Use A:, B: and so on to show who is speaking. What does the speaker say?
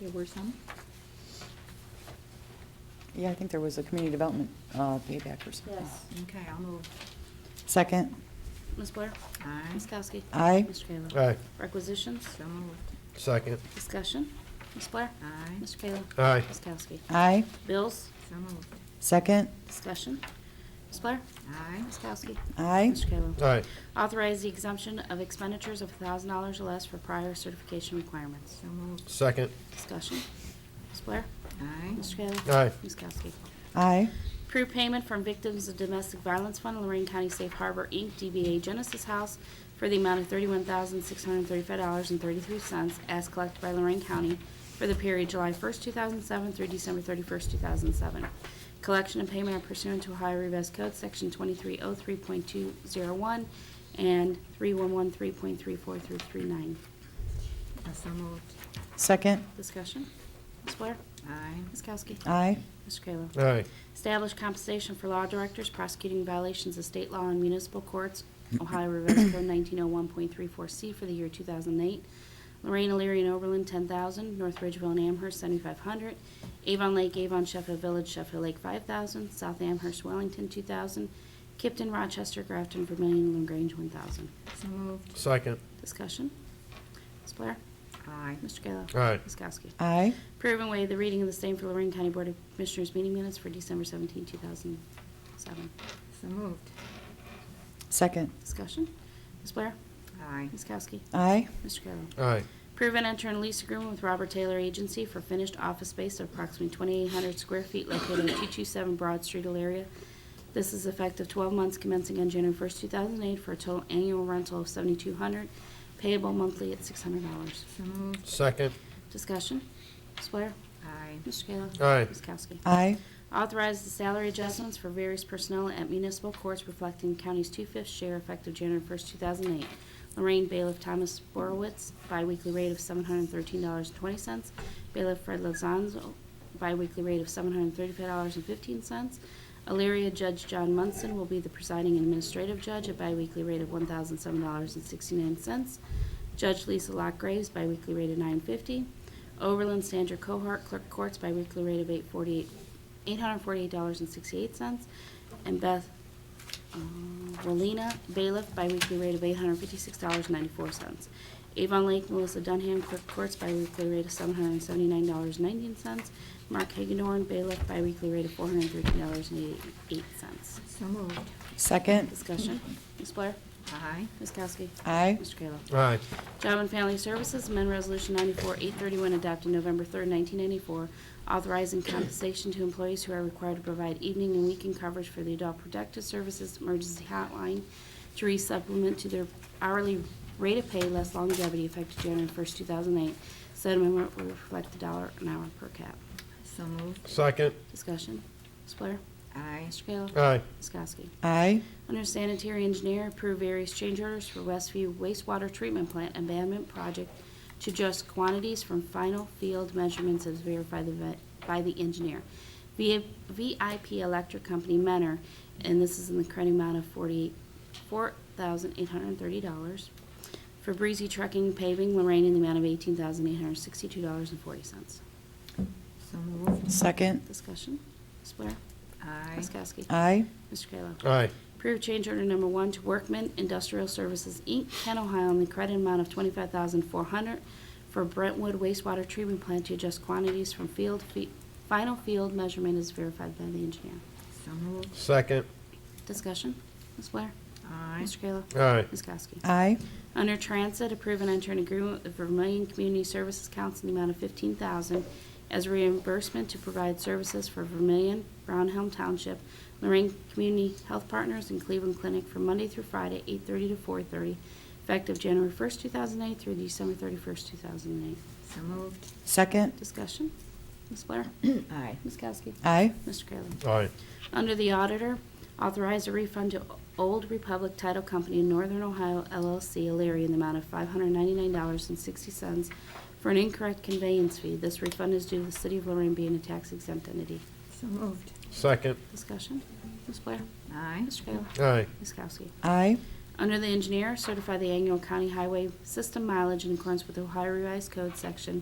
A: There were some?
B: Yeah, I think there was a community development uh, payback or something.
C: Yes.
A: Okay, I'll move.
B: Second,
C: Ms. Blair?
A: Aye.
C: Ms. Kowski?
B: Aye.
C: Mr. Kayla?
D: Aye.
C: Requisitions?
A: So moved.
D: Second.
C: Discussion? Ms. Blair?
A: Aye.
C: Mr. Kayla?
D: Aye.
C: Ms. Kowski?
B: aye.
C: Bills?
A: So moved.
B: Second,
C: Discussion? Ms. Blair?
A: Aye.
C: Ms. Kowski?
B: aye.
C: Mr. Kayla?
D: Aye.
C: Authorize the exemption of expenditures of $1,000 or less for prior certification requirements.
A: So moved.
D: Second.
C: Discussion? Ms. Blair?
A: Aye.
C: Mr. Kayla?
D: Aye.
C: Ms. Kowski?
B: Aye.
C: Approved payment from Victims of Domestic Violence Fund, Lorraine County Safe Harbor, Inc., DBA Genesis House, for the amount of $31,635.33 as collected by Lorraine County for the period July 1st, 2007 through December 31st, 2007. Collection and payment are pursuant to Ohio Revised Code, Section 2303.201 and 3113.34 through 39.
A: Uh, So moved.
B: Second,
C: Discussion? Ms. Blair?
A: Aye.
C: Ms. Kowski?
B: aye.
C: Mr. Kayla?
D: Aye.
C: Establish compensation for law directors prosecuting violations of state law and municipal courts, Ohio Revised Code 1901.34C for the year 2008. Lorraine, Elyria, and Oberlin, 10000 North Ridgeville and Amherst, 7500 Avon Lake, Avon, Sheffield Village, Sheffield Lake, 5000 South Amherst, Wellington, 2000 Kipton, Rochester, Grafton, Vermillion, and LaGrange, 1000
A: So moved.
D: Second.
C: Discussion? Ms. Blair?
A: Aye.
C: Mr. Kayla?
D: Aye.
C: Ms. Kowski?
B: Aye.
C: Approve and waive the reading of the same for Lorraine County Board of Commissioners meeting minutes for December 17, 2007.
A: So moved.
B: Second,
C: Discussion. Ms. Blair?
A: Aye.
C: Ms. Kowski?
B: aye.
C: Mr. Kayla?
D: Aye.
C: Approve and enter in lease agreement with Robert Taylor Agency for finished office space of approximately 2,800 square feet located at 227 Broad Street, Elyria. This is effective 12 months commencing on January 1st, 2008, for a total annual rental of 7,200, payable monthly at $600.
A: So moved.
D: Second.
C: Discussion. Ms. Blair?
A: Aye.
C: Mr. Kayla?
D: Aye.
C: Ms. Kowski?
B: Aye.
C: Authorize the salary adjustments for various personnel at municipal courts reflecting county's two-fifths share effective January 1st, 2008. Lorraine Bailiff Thomas Borowitz, biweekly rate of $713.20. Bailiff Fred Lozanzo, biweekly rate of $735.15. Elyria Judge John Munson will be the presiding and administrative judge, at biweekly rate of $1,007.69. Judge Lisa Locke Graves, biweekly rate of $9.50. Overland Sandra Cohart, clerk courts, biweekly rate of 848 $848.68, and Beth uh, Wallina, bailiff, biweekly rate of $856.94. Avon Lake, Melissa Dunham, clerk courts, biweekly rate of $779.19. Mark Hagedorn, bailiff, biweekly rate of $413.88.
A: So moved.
B: Second,
C: Discussion, Ms. Blair?
A: Aye.
C: Ms. Kowski?
B: aye.
C: Mr. Kayla?
D: Aye.
C: Job and Family Services, amend Resolution 94-831 adopted November 3rd, 1994, authorizing compensation to employees who are required to provide evening and weekend coverage for the Adult Protective Services Emergency Hotline to re-supplement to their hourly rate of pay less longevity effective January 1st, 2008. Said amendment will reflect the dollar an hour per cap.
A: So moved.
D: Second.
C: Discussion. Ms. Blair?
A: Aye.
C: Mr. Kayla?
D: Aye.
C: Ms. Kowski?
B: Aye.
C: Under sanitary engineer, approve various change orders for Westview wastewater treatment plant abandonment project to adjust quantities from final field measurements as verified the vet- by the engineer. V- VIP Electric Company, Menor, and this is in the current amount of forty four thousand eight hundred and thirty dollars. Fabrizi Trucking Paving, Lorraine, in the amount of $18,862.40.
A: So moved.
B: Second,
C: Discussion? Ms. Blair?
A: Aye.
C: Ms. Kowski?
B: aye.
C: Mr. Kayla?
D: Aye.
C: Approve change order number one to Workman Industrial Services, Inc., Kent, Ohio, in the credit amount of twenty-five thousand four hundred for Brentwood wastewater treatment plant to adjust quantities from field, fe- final field measurement is verified by the engineer.
A: So moved.
D: Second.
C: Discussion, Ms. Blair?
A: Aye.
C: Mr. Kayla?
D: Aye.
C: Ms. Kowski?
B: Aye.
C: Under Transit, approve and enter an agreement with the Vermillion Community Services Council in the amount of 15000 as reimbursement to provide services for Vermillion, Brownhelm Township, Lorraine Community Health Partners, and Cleveland Clinic from Monday through Friday, 8:30 to 4:30, effective January 1st, 2008 through December 31st, 2008.
A: So moved.
B: Second,
C: Discussion? Ms. Blair?
A: Aye.
C: Ms. Kowski?
B: aye.
C: Mr. Kayla?
D: Aye.
C: Under the auditor, authorize a refund to Old Republic Title Company in Northern Ohio LLC, Elyria, in the amount of $599.60 for an incorrect conveyance fee. This refund is due to the City of Lorraine being a tax exempt entity.
A: So moved.
D: Second.
C: Discussion? Ms. Blair?
A: Aye.
C: Mr. Kayla?
D: Aye.
C: Ms. Kowski?
B: Aye.
C: Under the engineer, certify the annual county highway system mileage in accordance with Ohio Revised Code Section